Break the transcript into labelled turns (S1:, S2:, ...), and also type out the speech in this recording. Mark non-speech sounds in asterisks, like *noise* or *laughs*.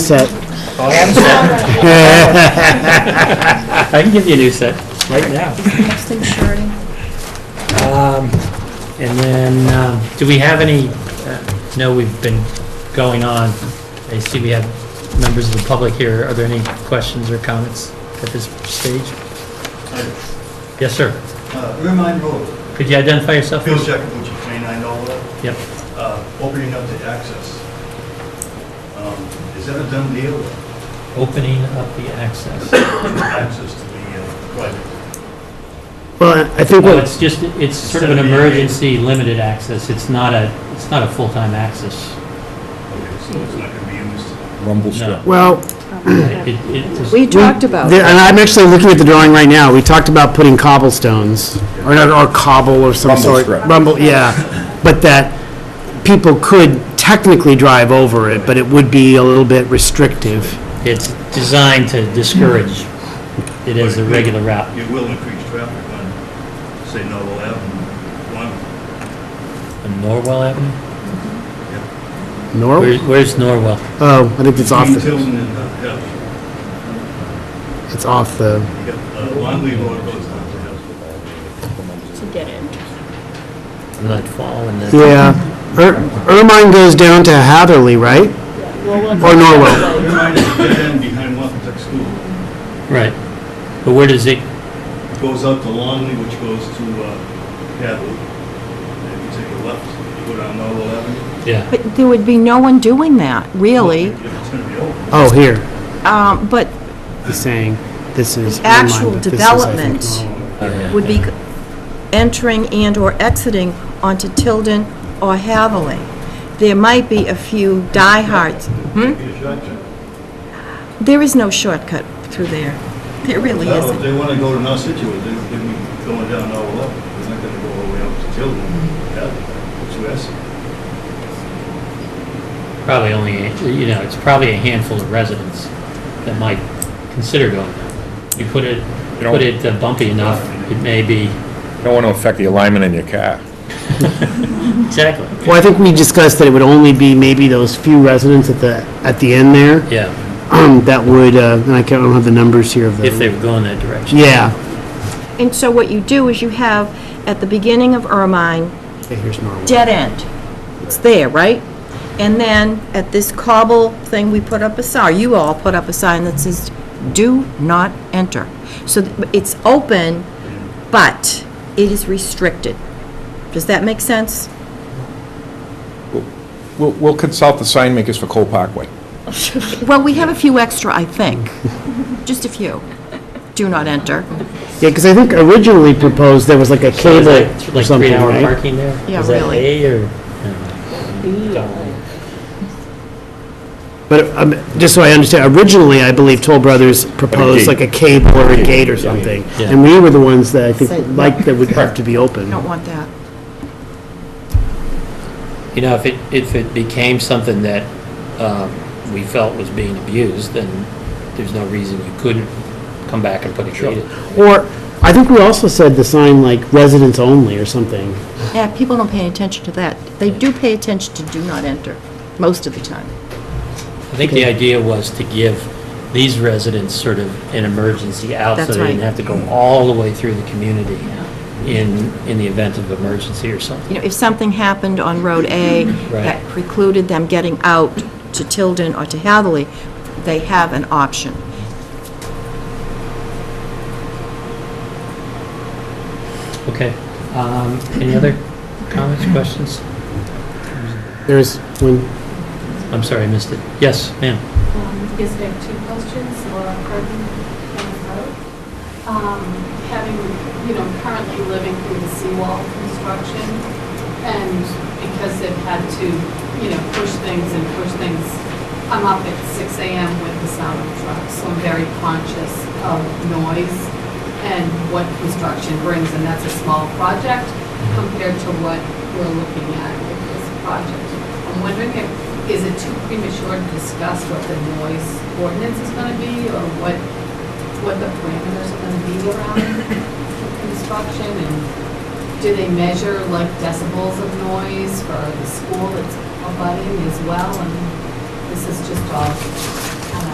S1: set.
S2: I have some.
S3: I can give you a new set right now.
S4: Next thing, surety.
S3: Um, And then, um, do we have any, uh, no, we've been going on. I see we have members of the public here. Are there any questions or comments at this stage? Yes, sir.
S5: Uh, Rear Mine Road,
S3: Could you identify yourself?
S5: Phil Jacobucci, 29 Dollar,
S3: Yep.
S5: uh, opening up the access. Um, Is that a done deal,
S3: Opening up the access.
S5: access to the uh, private?
S1: Well, I think
S3: Well,
S1: what,
S3: it's just, it's sort of an emergency limited access. It's not a, it's not a full-time access.
S5: Okay, so it's not going to be used.
S6: Rumble
S3: No.
S6: strip.
S1: well,
S3: It- it was-
S4: We talked about,
S1: there- and I'm actually looking at the drawing right now, we talked about putting cobblestones, or not, or cobble or some
S6: Rumble
S1: sort.
S6: strip.
S1: Rumble, yeah, but that people could technically drive over it, but it would be a little bit restrictive.
S3: It's designed to discourage it as a regular route.
S5: It will increase traffic on, say, Noble Avenue, one,
S3: On Norwell Avenue?
S1: Nor,
S3: Where- Where's Norwell?
S1: oh, I think it's off,
S5: between
S1: the.
S5: Tilden and, uh, House.
S1: it's off the,
S5: You got, uh, Longley Road goes down to House.
S4: it's a dead end.
S3: Not Fall and then...
S1: yeah. Ir- Ermine goes down to Hatherley, right? Or Norwell?
S5: Rear Mine is dead end behind Wampatuck School.
S3: Right. But where does it,
S5: It Goes out to Longley, which goes to uh, Hadley. And if you take a left, you go down Noble Avenue.
S3: yeah.
S4: But there would be no one doing that, really.
S5: It's going to be open.
S1: Oh, here,
S4: Um, But
S1: he's saying, this is.
S4: The actual
S1: Ermine, but this is, I think,
S4: development.
S1: Norwell.
S4: would be entering and/or exiting onto Tilden or Haviland. There might be a few diehards. Hmm?
S5: Be a shotgun.
S4: There is no shortcut through there. There really
S5: No, if
S4: isn't.
S5: they want to go to North Situate, they they'd be going down now eleven. They're not going to go all the way up to Tilden, yeah, to Essex.
S3: Probably only, you know, it's probably a handful of residents that might consider going there. You put it,
S6: You know-
S3: put it uh, bumpy enough, it may be...
S6: You don't want to affect the alignment in your car.
S3: Exactly.
S1: Well, I think we discussed that it would only be maybe those few residents at the, at the end there *clears throat*
S3: Yeah,
S1: that would, uh, and I can't, I don't have the numbers here of the.
S3: if they were going that direction.
S1: Yeah.
S4: And so what you do is you have, at the beginning of Ermine,
S1: Okay, here's Norwell.
S4: dead end. It's there, right? And then at this cobble thing, we put up a sign, you all put up a sign that says, "Do not enter." So th- it's open, but it is restricted. Does that make sense?
S6: We'll, we'll consult the sign makers for Cole Parkway.
S4: Well, we have a few extra, I *laughs* think. Just a few. Do not enter.
S1: Yeah, because I think originally proposed there was like a
S3: So
S1: cable
S3: is that
S1: or
S3: Like
S1: something,
S3: three-hour
S1: right?
S3: parking there?
S4: Yeah,
S3: Is that
S4: really.
S3: A or... no?
S1: But um, just so I understand, originally, I believe Toll Brothers proposed
S6: gate.
S1: like a cable or a gate or something.
S3: yeah.
S1: And we were the ones that I think
S4: Said-
S1: liked that would have to be open.
S4: Don't want that.
S3: You know, if it, if it became something that um, we felt was being abused, then there's no reason you couldn't come back and put a gate in.
S1: Or, I think we also said the sign like residents only or something.
S4: Yeah, people don't pay any attention to that. They do pay attention to do not enter, most of the time.
S3: I think the idea was to give these residents sort of an emergency out so
S4: That's
S3: they didn't
S4: right.
S3: have to go all the way through the community in, in the event of emergency or something.
S4: you know, if something happened on Road A that precluded them getting out to Tilden or to Hatherley, they have an option.
S3: Okay. Um, Any other comments, questions?
S1: There's one,
S3: I'm sorry, I missed it. Yes, ma'am.
S7: Um, Yes, I have two questions, Laura Curtin, County Road. Um, Having, you know, currently living through the seawall construction, and because they've had to, you know, push things and push things, I'm up at 6 AM with the sound of trucks, so I'm very conscious of noise and what construction brings, and that's a small project compared to what we're looking at with this project. I'm wondering if, is it too premature to discuss what the noise ordinance is going to be, or what, what the parameters are going to be around construction? And do they measure like decibels of noise for the school that's abutting as well? And this is just all